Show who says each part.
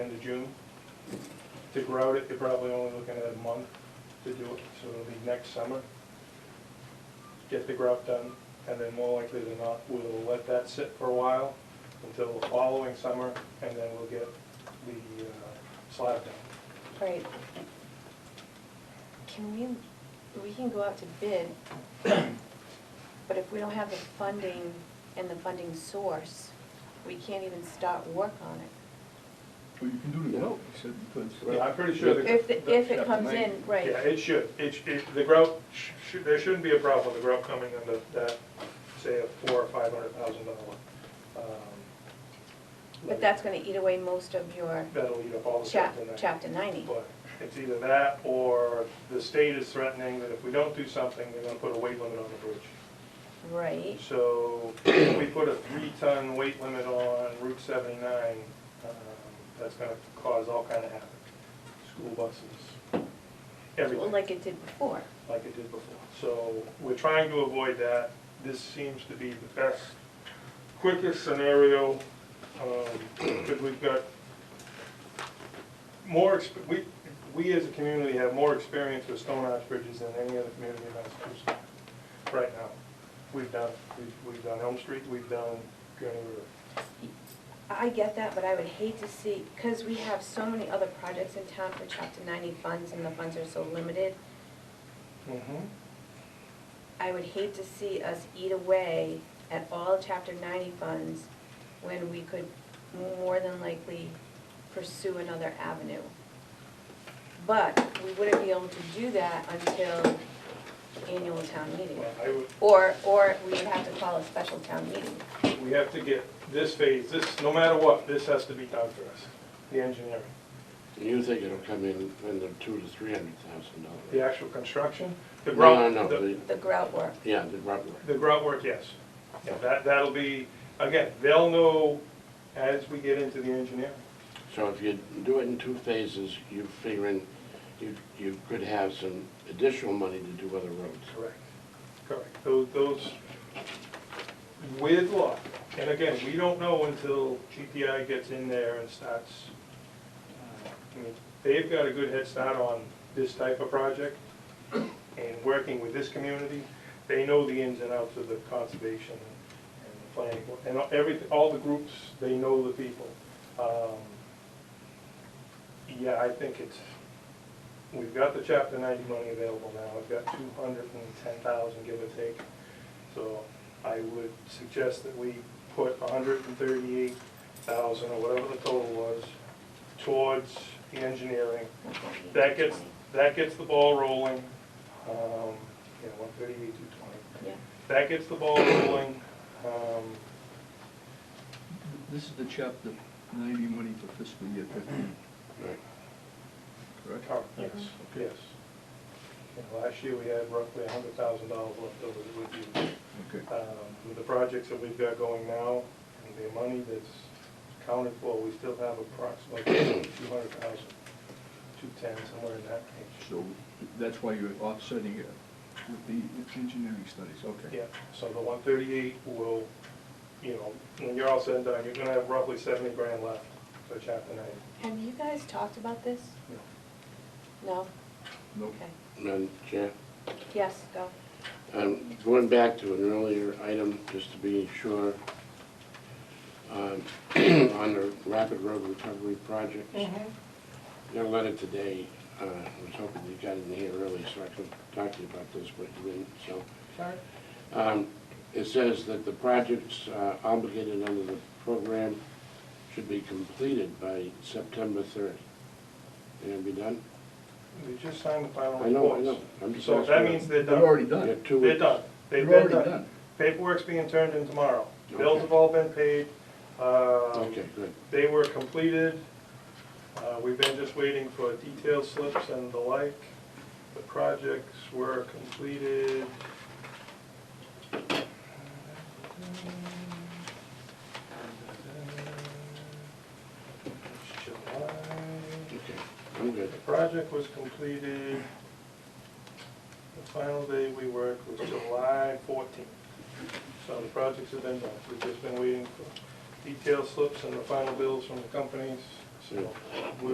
Speaker 1: end of June. To grout it, you're probably only looking at a month to do it, so it'll be next summer. Get the grout done, and then more likely than not, we'll let that sit for a while until the following summer, and then we'll get the uh, slab done.
Speaker 2: Right. Can we, we can go out to bid, but if we don't have the funding and the funding source, we can't even start work on it.
Speaker 3: Well, you can do the grout, you said you could.
Speaker 1: Yeah, I'm pretty sure the-
Speaker 2: If, the- if it comes in,
Speaker 1: Yeah,
Speaker 2: right,
Speaker 1: it should, it, sh- it, the grout, sh- sh- there shouldn't be a problem with the grout coming under that, say, a four or five hundred thousand dollar. um,
Speaker 2: but that's gonna eat away most of your
Speaker 1: That'll eat up all the stuff
Speaker 2: chap,
Speaker 1: in there.
Speaker 2: chapter ninety.
Speaker 1: But it's either that, or the state is threatening that if we don't do something, they're gonna put a weight limit on the bridge.
Speaker 2: Right,
Speaker 1: So if we put a three-ton weight limit on Route seventy-nine, um, that's gonna cause all kind of havoc. School buses,
Speaker 2: well,
Speaker 1: everything.
Speaker 2: like it did before.
Speaker 1: like it did before. So we're trying to avoid that. This seems to be the best, quickest scenario, um, because we've got more, exp- we, we as a community have more experience with stone arch bridges than any other community in Massachusetts right now. We've done, we've- we've done Elm Street, we've done Gurney River.
Speaker 2: I get that, but I would hate to see, because we have so many other projects in town for chapter ninety funds, and the funds are so limited. I would hate to see us eat away at all chapter ninety funds when we could more than likely pursue another avenue. But we wouldn't be able to do that until annual town meeting.
Speaker 1: Well, I would,
Speaker 2: Or, or we would have to call a special town meeting.
Speaker 1: We have to get this phase, this, no matter what, this has to be done for us, the engineering.
Speaker 4: And you think it'll come in, in the two to three hundred thousand dollars?
Speaker 1: The actual construction? The
Speaker 4: No, no,
Speaker 1: grout?
Speaker 4: no,
Speaker 1: the-
Speaker 4: the,
Speaker 2: The grout work,
Speaker 4: yeah, the rubber.
Speaker 1: The grout work, yes. Yeah, that, that'll be, again, they'll know as we get into the engineering.
Speaker 4: So if you do it in two phases, you figure in, you, you could have some additional money to do other roads.
Speaker 1: Correct. Correct. Those, those, with luck, and again, we don't know until GPI gets in there and starts. uh, I mean, They've got a good head start on this type of project and working with this community. They know the ins and outs of the conservation and the planning, board, and every, all the groups, they know the people. Um, Yeah, I think it's, We've got the chapter ninety money available now, I've got two hundred and ten thousand, give or take. So I would suggest that we put hundred and thirty-eight thousand, or whatever the total was, towards the engineering. That gets, that gets the ball rolling, um, yeah, one thirty-eight, two twenty.
Speaker 2: yeah.
Speaker 1: That gets the ball rolling, um,
Speaker 3: This is the chapter ninety money for fiscal year fifteen,
Speaker 4: Right.
Speaker 3: correct?
Speaker 1: Oh, Yes, yes. Yeah, Last year, we had roughly hundred thousand dollars left over that would be
Speaker 3: Okay.
Speaker 1: um, With the projects that we've got going now, and the money that's counted for, we still have approximately two hundred thousand, two ten, somewhere in that range.
Speaker 3: So that's why you're offsetting it with the engineering studies, okay.
Speaker 1: Yeah, so the one thirty-eight will, you know, when you're all said and done, you're gonna have roughly seventy grand left for chapter ninety.
Speaker 2: Have you guys talked about this? No?
Speaker 3: Nope.
Speaker 2: Okay.
Speaker 4: Madam Chair,
Speaker 2: Yes, go.
Speaker 4: um, going back to an earlier item, just to be sure, um, on the rapid road recovery project. Got a letter today, uh, I was hoping you got in here early so I could talk to you about this, but you didn't, so.
Speaker 1: Sorry?
Speaker 4: Um, It says that the projects uh, obligated under the program should be completed by September 30. They gonna be done?
Speaker 1: They just signed the final
Speaker 4: I know, I
Speaker 1: reports.
Speaker 4: know. I'm just
Speaker 1: So that
Speaker 4: asking.
Speaker 1: means they're
Speaker 3: They're
Speaker 1: done.
Speaker 3: already
Speaker 4: You
Speaker 3: done.
Speaker 4: got two
Speaker 1: They're
Speaker 4: weeks.
Speaker 1: done. They've
Speaker 3: They're
Speaker 1: been
Speaker 3: already
Speaker 1: done.
Speaker 3: done.
Speaker 1: Paperwork's being turned in tomorrow.
Speaker 4: Okay.
Speaker 1: Bills have all been paid. Um,
Speaker 4: Okay, good.
Speaker 1: They were completed. Uh, We've been just waiting for detail slips and the like. The projects were completed. July.
Speaker 4: Okay, I'm good.
Speaker 1: The project was completed, the final day we worked was July fourteenth. So the projects have been done, we've just been waiting for detailed slips and the final bills from the companies. so.